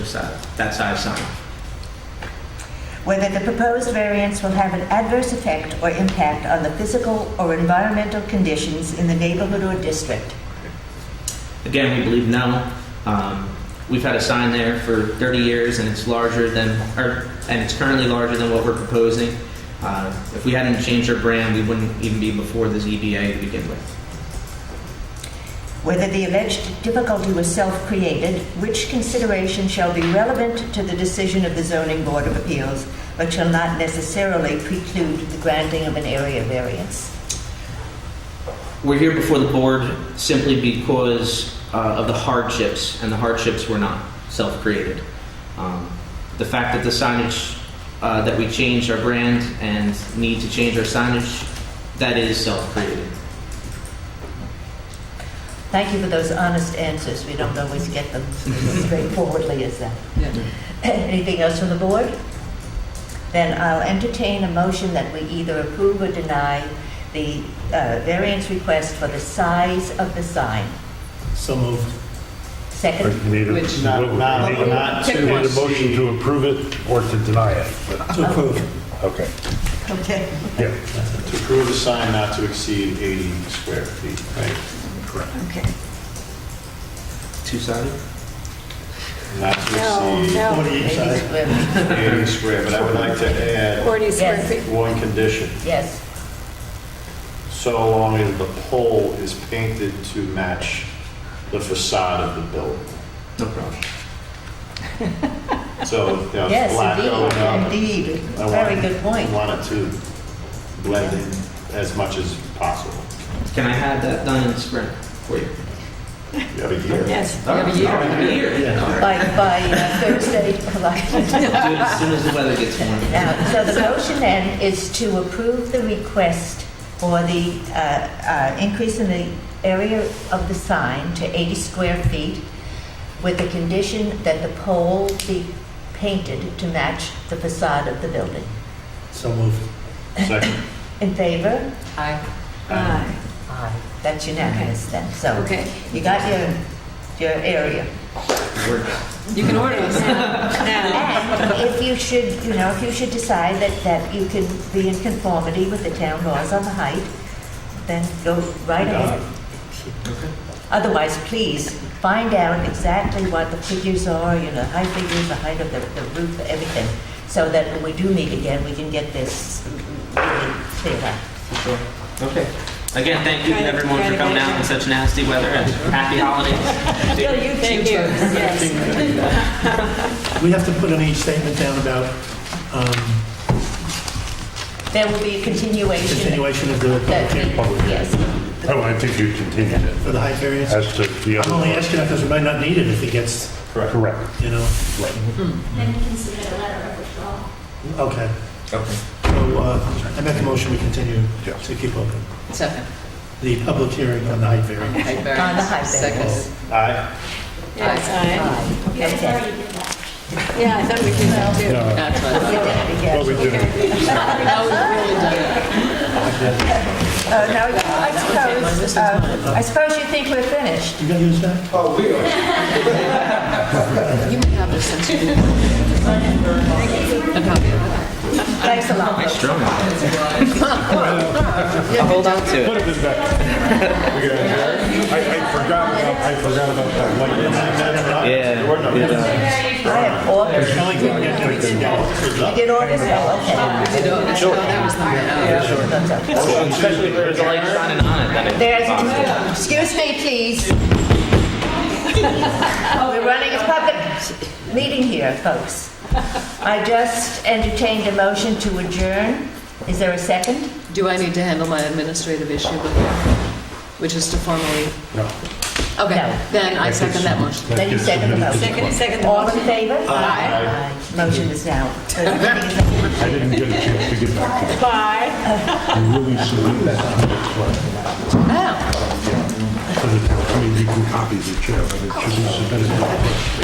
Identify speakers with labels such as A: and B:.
A: side, that side sign.
B: Whether the proposed variance will have an adverse effect or impact on the physical or environmental conditions in the neighborhood or district.
A: Again, we believe no. Um, We've had a sign there for 30 years, and it's larger than, or, and it's currently larger than what we're proposing. Uh, If we hadn't changed our brand, we wouldn't even be before the ZBA to begin with.
B: Whether the alleged difficulty was self-created, which consideration shall be relevant to the decision of the zoning board of appeals, but shall not necessarily preclude the granting of an area variance.
A: We're here before the board simply because uh, of the hardships, and the hardships were not self-created. Um, The fact that the signage, uh, that we changed our brand and need to change our signage, that is self-created.
B: Thank you for those honest answers. We don't always get them as straightforwardly as that. Anything else from the board? Then I'll entertain a motion that we either approve or deny the uh, variance request for the size of the sign.
C: So moved.
D: Or
B: Second,
D: you need a,
C: Which not-
D: you need
C: not-
D: a-
C: not
D: you need a
C: to-
D: motion to approve it or to deny it. but-
C: To approve.
D: Okay,
B: okay.
D: yeah.
C: To approve a sign not to exceed 80 square feet, right?
B: Okay.
A: Two-sided?
C: Not to exceed
B: Maybe square-
C: 80 square, but I would like to add
E: 40 square
B: Yes.
E: feet.
C: one condition.
B: Yes,
C: So long as the pole is painted to match the facade of the building.
A: No problem.
C: So, you know, it's black going
B: yes,
C: up.
B: indeed, indeed.
C: I want-
B: Very good point.
C: I want it to blend in as much as possible.
A: Can I have that done in spring for you?
C: You have a year.
E: Yes.
A: All right, all right, a year. All right.
B: By, by uh, Thursday, July.
A: I'll do it As soon as the weather gets warm.
B: Now, Uh, so the motion then is to approve the request for the uh, uh, increase in the area of the sign to 80 square feet with the condition that the pole be painted to match the facade of the building.
C: So moved. Second.
B: In favor?
E: Aye.
B: Aye. That's unanimous then, so.
E: Okay.
B: You got your, your area.
A: We're-
E: You can order us now.
B: And if you should, you know, if you should decide that, that you can be in conformity with the town laws on the height, then go right ahead. Otherwise, please, find out exactly what the figures are, you know, height figures, the height of the, the roof, everything, so that when we do meet again, we can get this really clear up.
A: for sure. Okay. Again, thank you to everyone for coming out in such nasty weather and happy holidays.
E: Thank you. Yes.
F: We have to put any statement down about um,
B: There will be a continuation.
F: continuation of the public
B: That-
F: hearing
B: Yes.
D: Oh, I think you continued it.
F: for the height variance.
D: As to the
F: I'm only
D: other.
F: asking that because we might not need it if it gets,
D: Correct.
F: you know,
G: Then you can submit a letter of withdrawal.
F: okay.
A: Okay.
F: So uh, I make a motion, we continue
D: Yes.
F: to keep open
H: Second.
F: the public hearing on the height variance.
H: Height
B: On the height
H: variance.
B: variance.
H: Second.
C: Aye.
E: Yes,
G: You guys
B: Okay.
G: already did that.
E: aye. Yeah, I thought we did that too.
D: No,
H: That's what I thought.
D: What we did,
H: That was really done.
B: Uh, Now, I suppose, uh, I suppose you think we're finished.
F: You gonna use that?
H: You may have this since you did. A copy of it.
B: Thanks a lot.
A: Strong. I'll hold on to it.
D: put it in back. We got it. I, I forgot, about- I forgot about that. light.
A: Yeah. yeah.
B: I have orders.
F: I like when we get everything down.
B: You did orders? Oh, okay.
H: You know, that's- oh, that was number nine.
A: Especially if there's a light shining on it. then it-
B: There's, excuse me, please. Oh, We're running a public meeting here, folks. I just entertained a motion to adjourn. Is there a second?
H: Do I need to handle my administrative issue before, which is to formally?
D: No.
H: Okay,
B: No.
H: then I second that motion.
B: Then you second the motion.
E: Second, second.
B: All in favor?
H: Aye.
B: Aye. Motion is now. the meeting is now-
D: I didn't get a chance to get back to
E: Bye.
D: you. You really salute that hundred square.
H: Oh.
D: I mean, you can copy the chair, but it should be submitted.